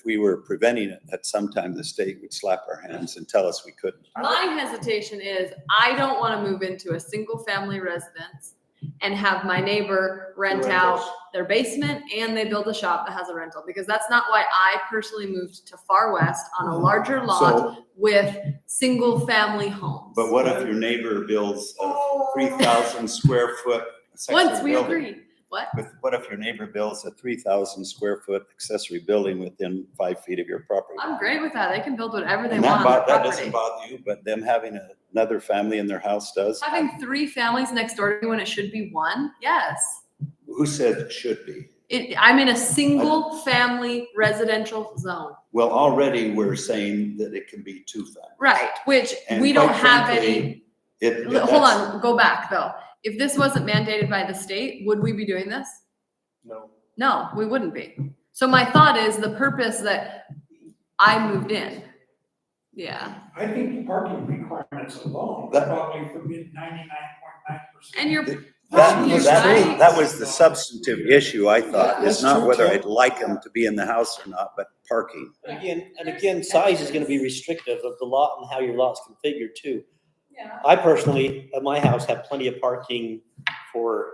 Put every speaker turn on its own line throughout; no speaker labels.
if we were preventing it, at some time the state would slap our hands and tell us we couldn't.
My hesitation is I don't want to move into a single family residence and have my neighbor rent out their basement and they build a shop that has a rental because that's not why I personally moved to Far West on a
Mm-hmm.
larger lot
So,
with single family homes.
But what if your neighbor builds a three thousand square foot accessory
Once we
building?
agree, what?
But what if your neighbor builds a three thousand square foot accessory building within five feet of your property?
I'm great with that. They can build whatever they
And that
want on their
bo- that doesn't
property.
bother you, but them having a- another family in their house does?
Having three families next door to you when it should be one, yes.
Who says it should be?
It, I'm in a single family residential zone.
Well, already we're saying that it can be two families.
Right, which
And
we don't
quite
have any,
frankly, It, it-
L- hold
that's-
on, go back though. If this wasn't mandated by the state, would we be doing this?
no,
No, we wouldn't be. So my thought is the purpose that I moved in. Yeah,
I think parking requirements alone
That-
probably forbid ninety-nine point nine percent.
and you're,
That,
You're
that,
right.
that was the substantive issue, I thought, is
That's
not
true,
whether
Ted.
I'd like them to be in the house or not, but parking.
And Again, and again, size is gonna be restrictive of the lot and how your lot's configured too. I personally, at my house, have plenty of parking for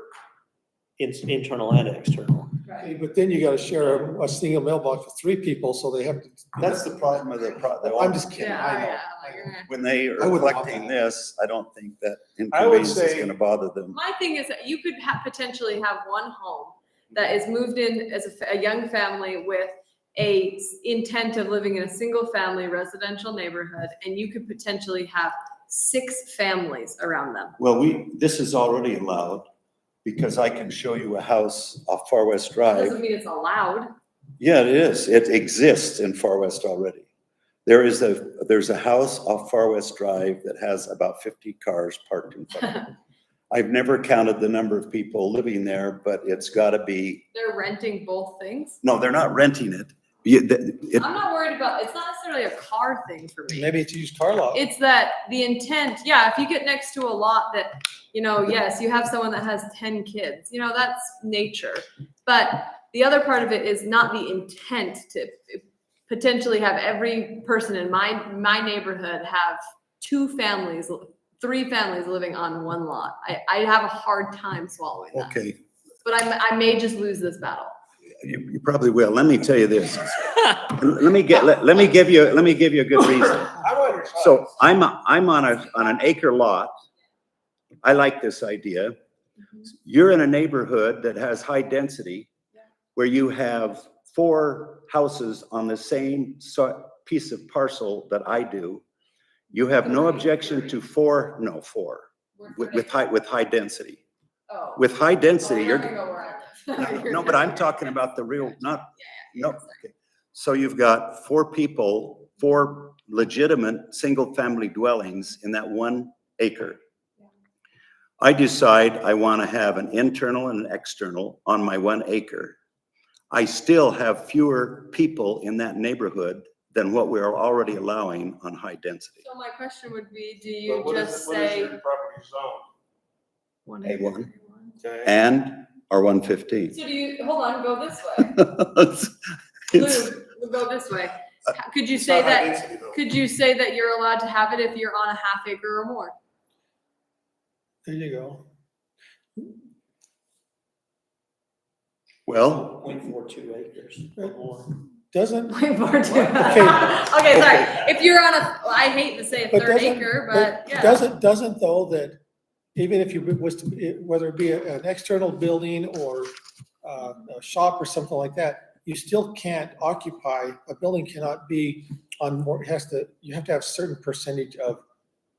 in- internal and external.
Right.
Right.
Hey, But then you gotta share a, a single mailbox for three people, so they have to.
That's the problem of the, pro- the-
I'm just kidding,
yeah,
I know.
yeah, like you're gonna-
when they are
I would love
collecting
that.
this, I don't think that
I would
inconvenience is
say-
gonna bother them.
My thing is that you could ha potentially have one home that is moved in as a, fa- a young family with a s- intent of living in a single family residential neighborhood, and you could potentially have six families around them.
Well, we, this is already allowed, because I can show you a house off Far West Drive.
Doesn't mean it's allowed.
Yeah, it is, it exists in Far West already. There is a, there's a house off Far West Drive that has about fifty cars parked in front of it.
They're
I've never counted the number of people living there, but it's gotta be,
renting both things.
no, they're not renting it. You- th- it-
I'm not worried about, it's not necessarily a car thing for me.
Maybe it's used car lot.
It's that the intent, yeah, if you get next to a lot that, you know, yes, you have someone that has ten kids, you know, that's nature. But the other part of it is not the intent to potentially have every person in my, my neighborhood have two families, three families living on one lot. I, I have a hard time swallowing that.
Okay,
But I, I may just lose this battle.
you, you probably will. Let me tell you this. Let me get, let, let me give you, let me give you a good reason.
I'm on your side.
So I'm, a- I'm on a, on an acre lot. I like this idea. You're in a neighborhood that has high density where you have four houses on the same so- piece of parcel that I do. You have no objection to four, no, four. with, with high, with high density.
Oh.
With high density,
Well, we're
you're,
not gonna go where I live.
no, but I'm talking about the real, not, no.
sorry.
okay. So you've got four people, four legitimate, single-family dwellings in that one acre. I decide I want to have an internal and an external on my one acre. I still have fewer people in that neighborhood than what we are already allowing on high density.
So my question would be, do
But
you
what is,
just
it- what is
say?
your property zone?
one
A one.
Okay.
And our one fifteen.
So do you, hold on, go this way.
It's- Uh,
Lou, we'll go this way. How- Could you
It's
say
not high
that,
density, though.
could you say that you're allowed to have it if you're on a half acre or more?
There you go.
Well,
Point four two acres or more.
Doesn't,
Way more too.
Okay.
Okay, sorry. If you're on a, I hate to say a
But
third
doesn't-
acre, but
but
yeah.
doesn't, doesn't though that even if you was to, whether it be an external building or uh, a shop or something like that, you still can't occupy, a building cannot be on more, it has to, you have to have certain percentage of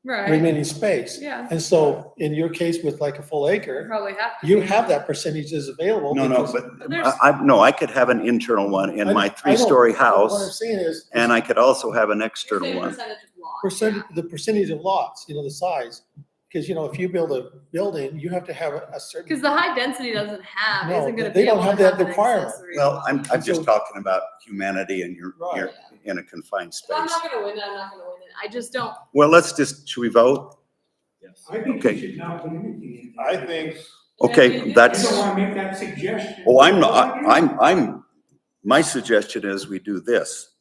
Right,
remaining space.
yeah,
And so in your case with like a full acre,
probably have to.
you
be.
have that percentage is available.
No, no,
because-
but
There's-
I, I, no, I could have an internal one in
I-
my
I don't-
three-story
What I'm
house,
saying is.
and I could also have an
You're
external
saying
one.
percentage of lot,
Percent,
yeah.
the percentage of lots, you know, the size, because you know, if you build a building, you have to have a a
Cause
certain.
the high density doesn't have,
No,
isn't gonna
they
be able to
don't have
have
that
an
requirement.
accessory.
Well, I'm, I'm just
So-
talking about humanity and you're,
Right.
you're in a confined
I'm
space.
not gonna win, it, I'm not gonna win it. I just don't,
Well, let's just, should we vote?
I think
Okay.
we should not put anything in there.
I think,
Okay,
Yeah, you do.
I
that's,
don't wanna make that suggestion.
oh, I'm not, I'm, I'm my suggestion is we do this.